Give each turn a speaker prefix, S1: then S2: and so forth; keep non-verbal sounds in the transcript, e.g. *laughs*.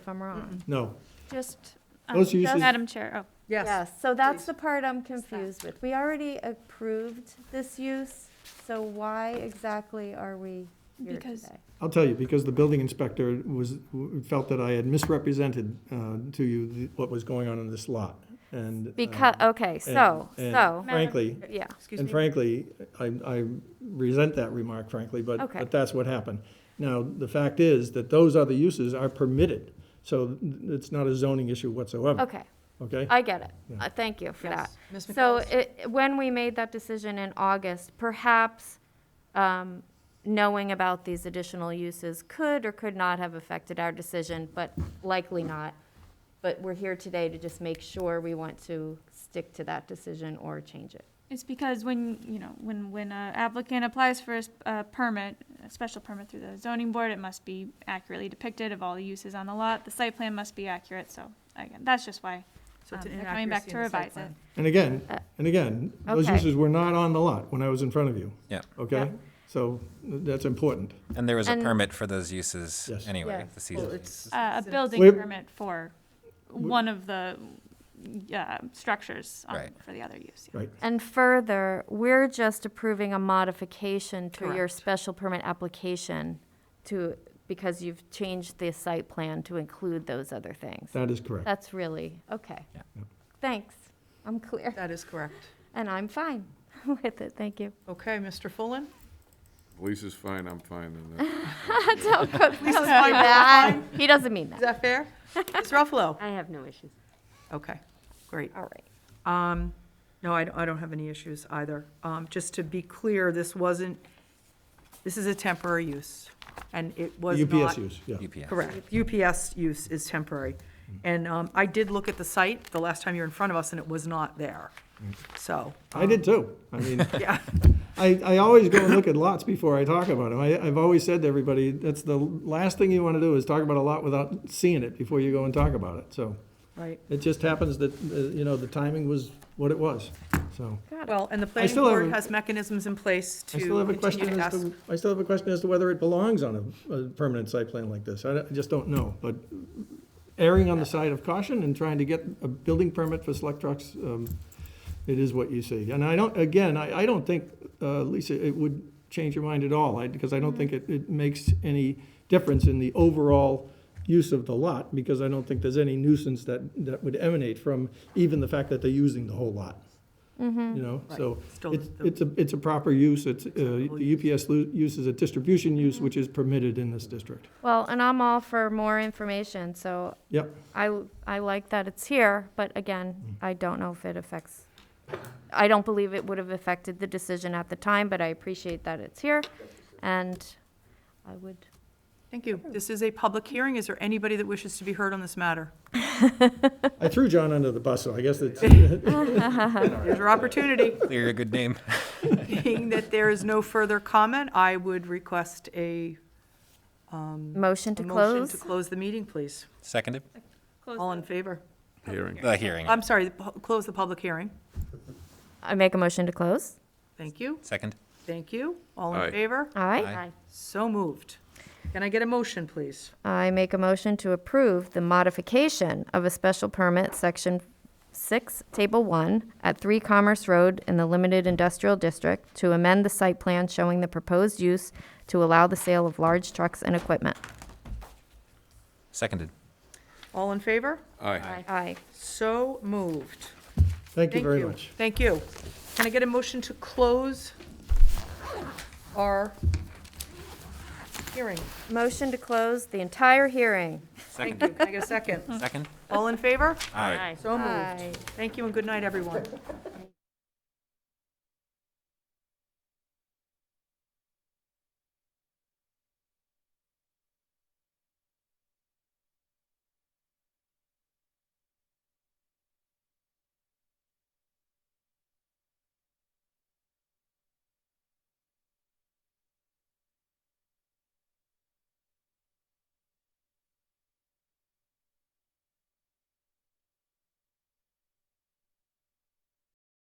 S1: if I'm wrong.
S2: No,
S1: Just,
S2: um, Those uses-
S3: Madam Chair, oh,
S4: Yes.
S1: yes, so that's the part I'm confused with. We already approved this use, so why exactly are we here
S3: Because-
S1: today?
S2: I'll tell you, because the building inspector was, felt that I had misrepresented uh, to you the- what was going on in this lot, and. um,
S1: Because, okay,
S2: and-
S1: so,
S2: and
S1: so,
S2: Frankly,
S1: yeah,
S4: Excuse
S2: and
S4: me.
S2: frankly, I, I resent that remark frankly, but,
S1: Okay.
S2: but that's what happened. Now, the fact is that those other uses are permitted, so it's not a zoning issue whatsoever,
S1: okay,
S2: okay?
S1: I get it.
S2: Yeah.
S1: Uh, Thank you for that.
S4: Yes. Ms.
S1: So
S4: McCullough?
S1: it, when we made that decision in August, perhaps um, knowing about these additional uses could or could not have affected our decision, but likely not. But we're here today to just make sure we want to stick to that decision or change it.
S3: it's because when, you know, when, when a applicant applies for a, s- a permit, a special permit through the zoning board, it must be accurately depicted of all the uses on the lot. The site plan must be accurate, so again, that's just why.
S4: So it's
S3: um,
S4: an
S3: they're coming back
S4: inaccuracy
S3: to
S4: in the site
S3: revise
S4: plan.
S3: it.
S2: And again,
S1: Uh,
S2: and again, those
S1: okay.
S2: uses were not on the lot when I was in front of you.
S5: Yeah.
S2: Okay?
S1: Yeah.
S2: So that's important.
S5: And there was a
S1: And-
S5: permit for those uses
S2: Yes.
S5: anyway,
S1: Yes.
S5: the season.
S4: Well,
S5: uses.
S4: it's-
S3: Uh,
S4: it's
S3: a
S4: in-
S3: building
S2: We're-
S3: permit for one of the, uh, structures on-
S5: Right.
S3: for the other use. yeah.
S2: Right.
S1: And further, we're just approving a modification to your
S4: Correct.
S1: special permit application to, because you've changed the site plan to include those other things.
S2: That is correct.
S1: That's really, okay.
S5: Yeah.
S2: Yep.
S1: Thanks, I'm clear,
S4: That is correct.
S1: and I'm fine *laughs* with it, thank you.
S4: Okay, Mr. Fullen?
S6: Lisa's fine, I'm fine, and that-
S1: Don't *laughs* go- don't do
S4: fine,
S1: that. He doesn't mean that.
S4: Is that fair? Ms. Ruffalo?
S7: I have no issues.
S4: Okay, great.
S1: All right.
S4: Um, No, I don't, I don't have any issues either. Um, Just to be clear, this wasn't, this is a temporary use, and it was not.
S2: UPS use, yeah.
S5: UPS.
S4: Correct. UPS use is temporary. And um, I did look at the site the last time you were in front of us, and it was not there. So, um,
S2: I did too. I mean,
S4: *laughs* yeah,
S2: I, I always go and look at lots before I talk about them. I, I've always said to everybody, that's the last thing you want to do is talk about a lot without seeing it before you go and talk about it. So
S4: right.
S2: it just happens that, uh, you know, the timing was what it was, so.
S4: Well, and the planning
S2: still have
S4: board
S2: a-
S4: has mechanisms in place to
S2: I still have a
S4: continue
S2: question
S4: to
S2: as
S4: ask.
S2: to, I still have a question as to whether it belongs on a, a permanent site plan like this. I, don't- I just don't know, but erring on the side of caution and trying to get a building permit for select trucks, um, it is what you see. And I don't, again, I, I don't think, uh, Lisa, it would change your mind at all, I, because I don't think it, it makes any difference in the overall use of the lot, because I don't think there's any nuisance that, that would emanate from even the fact that they're using the whole lot. You know,
S4: Mm-hmm. Right.
S2: so
S4: Still
S2: it's,
S4: the-
S2: it's a, it's a proper use, it's, uh,
S4: Acceptable
S2: the UPS lu- use is a distribution use, which is permitted in this district.
S1: Well, and I'm all for more information, so
S2: *laughs* Yep,
S1: I, I like that it's here, but again,
S5: Mm-hmm.
S1: I don't know if it affects, I don't believe it would have affected the decision at the time, but I appreciate that it's here, and I would
S4: Thank you. This is a public hearing. Is there anybody that wishes to be heard on this matter?
S2: I threw John under the bus, so I guess it's,
S4: Here's your opportunity.
S5: Clear a good name. *laughs*
S4: Being that there is no further comment, I would request a
S1: motion
S4: a
S1: to
S4: motion to
S1: close.
S4: close the meeting, please.
S5: Seconded?
S3: Close
S4: All
S3: the-
S4: in favor?
S6: hearing.
S5: The hearing.
S4: I'm sorry, the pu- close the public hearing.
S1: I make a motion to close.
S4: Thank you,
S5: Second?
S4: thank you. All in
S6: Aye.
S4: favor?
S1: All right.
S5: Aye.
S4: So moved. Can I get a motion, please?
S1: I make a motion to approve the modification of a special permit, Section 6, Table 1, at 3 Commerce Road in the Limited Industrial District to amend the site plan showing the proposed use to allow the sale of large trucks and equipment.
S5: Seconded.
S4: All in favor?
S6: Aye.
S1: Aye.
S4: So moved.
S2: thank you very much.
S4: Thank you. Can I get a motion to close our hearing?
S1: Motion to close the entire hearing.
S4: Thank you. Can I get a second?
S5: Second?
S4: All in favor?
S5: Aye.
S4: So moved.
S1: Aye.
S4: Thank you and good night, everyone.